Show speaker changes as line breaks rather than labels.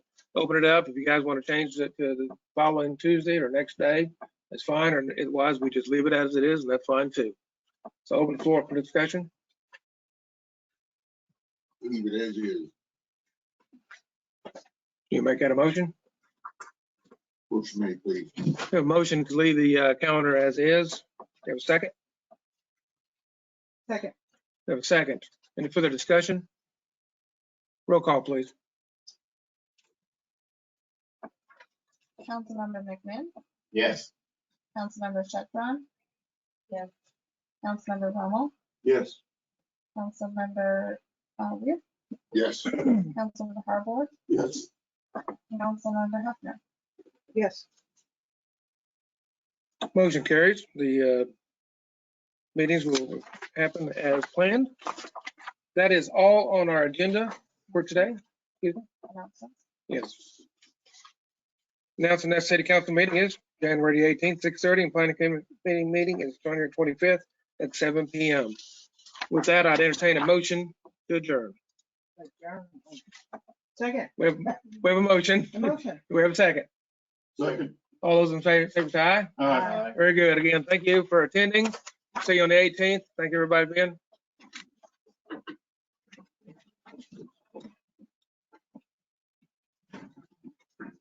open it up. If you guys want to change it to the following Tuesday or next day, that's fine. Or otherwise, we just leave it as it is and that's fine too. So open the floor for discussion.
leave it as is.
You make that a motion?
Motion made, please.
We have A motion to leave the uh, calendar as is. We have a second?
Second,
We have a second. Any further discussion? Roll call, please.
Councilmember McMahon,
Yes.
Councilmember Shetron. Yes. Councilmember Rommel,
Yes.
Councilmember uh, Weir,
Yes.
Councilmember Harbord,
Yes.
and Councilmember Hefner.
Yes,
Motion carries. The uh, meetings will happen as planned. That is all on our agenda for today.
Announcements.
Yes. Announcing next city council meeting is January eighteenth, six thirty, and planning committee meeting is January twenty-fifth at seven P M. With that, I'd entertain a motion to adjourn.
second,
We have, we have a motion.
the motion.
We have a second.
Second.
All those in favor, say aye.
All right.
Very good. Again, thank you for attending. See you on the eighteenth. Thank you, everybody, for being.